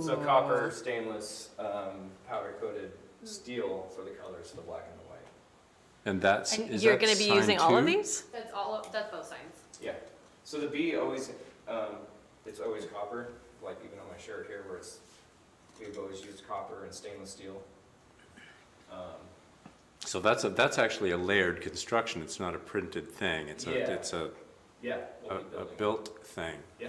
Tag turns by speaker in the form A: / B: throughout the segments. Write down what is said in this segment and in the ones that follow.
A: So copper, stainless, um, powder coated steel for the colors, the black and the white.
B: And that's,
C: And
B: is
C: you're
B: that
C: gonna be
B: sign
C: using all of
B: two?
C: these?
D: That's all, of- that's both signs.
A: Yeah, so the B always, um, it's always copper, like even on my shirt here where it's, we've always used copper and stainless steel. Um,
B: So that's a, that's actually a layered construction. It's not a printed thing. It's
A: Yeah.
B: a, it's a,
A: Yeah,
B: a,
A: we'll be
B: a
A: building,
B: built thing.
A: yeah.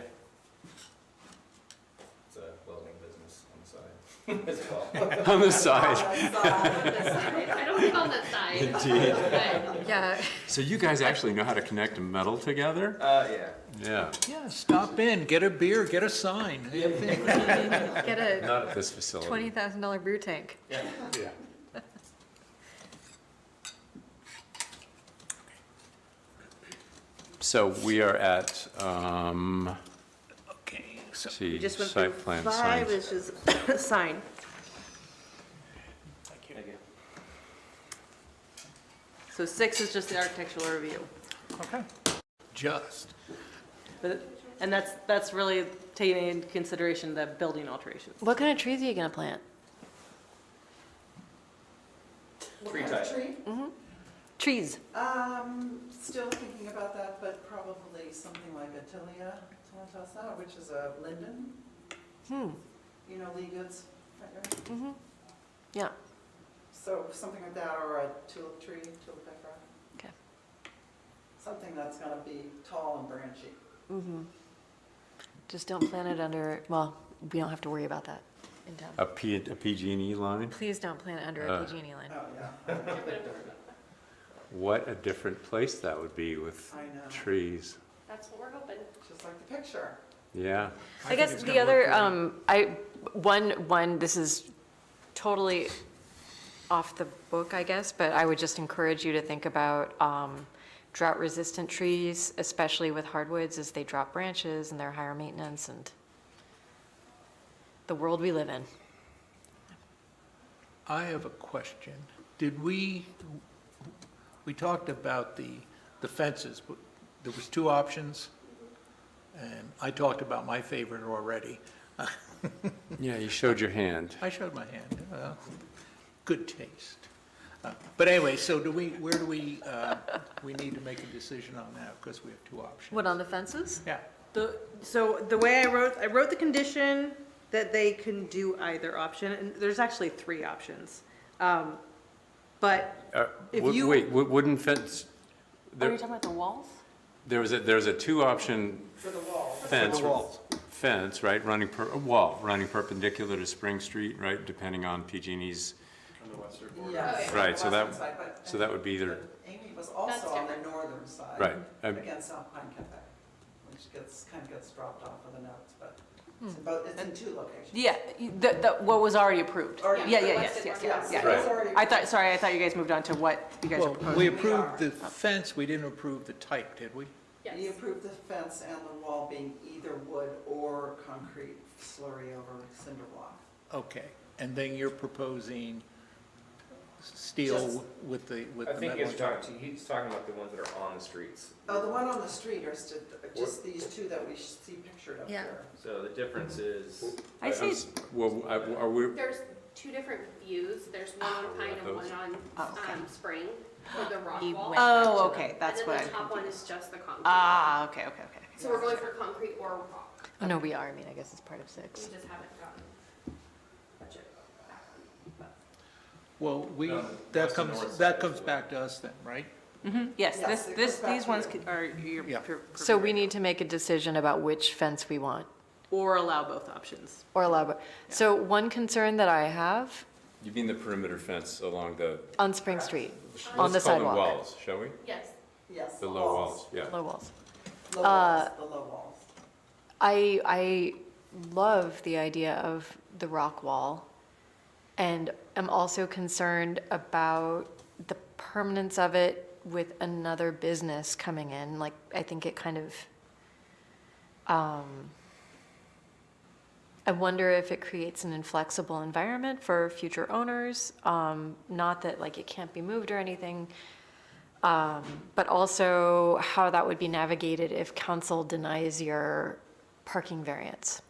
A: It's a welding business on the side as well.
B: On the side.
D: I don't think on that side.
B: Indeed.
D: But
C: Yeah.
B: So you guys actually know how to connect metal together?
A: Uh, yeah.
B: Yeah,
E: Yeah, stop in, get a beer, get a sign.
C: Get a
B: not at this facility.
C: twenty thousand dollar brew tank.
B: Yeah. So we are at, um,
E: Okay, so
B: see,
F: Just went through
B: site plan
F: five,
B: signs.
F: which is sign.
A: Thank you.
F: So six is just the architectural review.
E: just.
F: But, and that's, that's really taking into consideration the building alterations.
C: What kind of trees are you gonna plant?
A: Tree type.
C: Trees.
G: Um, still thinking about that, but probably something like a Tilia tomentasa, which is a linden. You know, Lee Goods, right, right?
C: Yeah.
G: So something like that, or a tulip tree, tulip pepper.
C: Okay.
G: Something that's gonna be tall and branchy.
C: Just don't plant it under, well, we don't have to worry about that in town.
B: A P, a PG&E line?
C: Please don't plant it under a
B: Uh.
C: PG&E E line.
G: Oh, yeah,
B: What a different place that would be with
G: I know,
B: trees.
D: That's what we're hoping.
G: just like the picture.
B: Yeah,
C: I guess the other, um, I, one, one, this is totally off the book, I guess, but I would just encourage you to think about, um, drought-resistant trees, especially with hardwoods, as they drop branches and they're higher maintenance and the world we live in.
E: I have a question. Did we, we talked about the, the fences, but there was two options. And I talked about my favorite already.
B: yeah, you showed your hand.
E: I showed my hand. Well, Good taste. Uh, But anyway, so do we, where do we, uh, we need to make a decision on that because we have two options.
C: What, on the fences?
E: Yeah.
F: The, so the way I wrote, I wrote the condition that they can do either option, and there's actually three options. Um, But
B: Uh,
F: If
B: wo-
F: you-
B: Wait, wo- wooden fence,
C: Are
B: there,
C: you talking about the walls?
B: there was a, there's a two-option
G: For the wall.
B: fence, fence, right, running per, a wall, running perpendicular to Spring Street, right, depending on PG&E's.
G: Yes.
B: Right, so that-
G: Western side, but-
B: so that would be either-
G: but Amy was also on the northern side.
B: Right, um,
G: Against South Pine Cafe, which gets, kind of gets dropped off of the notes, but it's in both, it's in two locations.
F: Yeah, you- the, the, what was already approved.
G: Already
F: Yeah, yeah,
G: approved.
F: yes, yes,
G: Yes,
F: yes,
G: it
F: yes.
G: was already.
F: I thought, sorry, I thought you guys moved on to what you guys are
E: Well,
F: proposing. Oh.
E: we
G: We are.
E: approved the fence, we didn't approve the type, did we?
G: He
D: Yes.
G: approved the fence and the wall being either wood or concrete slurry over cinder block.
E: Okay, and then you're proposing steel
G: Just-
E: with the, with
A: I
E: the
A: think he
E: metal.
A: was talking, he's talking about the ones that are on the streets.
G: Oh, the one on the street are st- just these two that we see pictured up
C: Yeah.
G: there.
A: So the difference is.
F: I see.
B: uh, Well, I- are we,
D: There's two different views. There's one on Pine and one on, um, Spring for the rock
C: He
D: wall.
C: went-
F: Oh, okay, that's what
D: And then
F: I'm
D: the top one
F: confused.
D: is just the concrete.
F: Ah, okay, okay, okay. okay.
D: So we're going for concrete or rock.
C: Oh, no, we are, I mean, I guess it's part of
D: We
C: six.
D: just haven't gotten budget back. but-
E: Well, we,
A: No, that's
E: that
A: the north
E: comes,
A: side.
E: that comes back to us then, right?
F: Yes,
G: Yes,
F: this,
G: it
F: this,
G: goes back
F: these
G: to
F: ones
G: you.
F: could- are, you're.
E: Yeah.
F: pre-
C: So we
F: preferred.
C: need to make a decision about which fence we want,
F: Or allow both options.
C: or allow, bo- so one concern that I have
B: you mean the perimeter fence along the,
C: on Spring Street, on the
B: let's call them
C: sidewalk.
B: walls, shall we?
D: Yes,
G: Yes.
B: The low walls, yeah.
C: Low walls.
G: Low walls,
F: Uh,
G: the low walls.
C: I, I love the idea of the rock wall and am also concerned about the permanence of it with another business coming in. Like, I think it kind of, um, I wonder if it creates an inflexible environment for future owners. Um, not that like it can't be moved or anything, um, but also how that would be navigated if council denies your parking variance.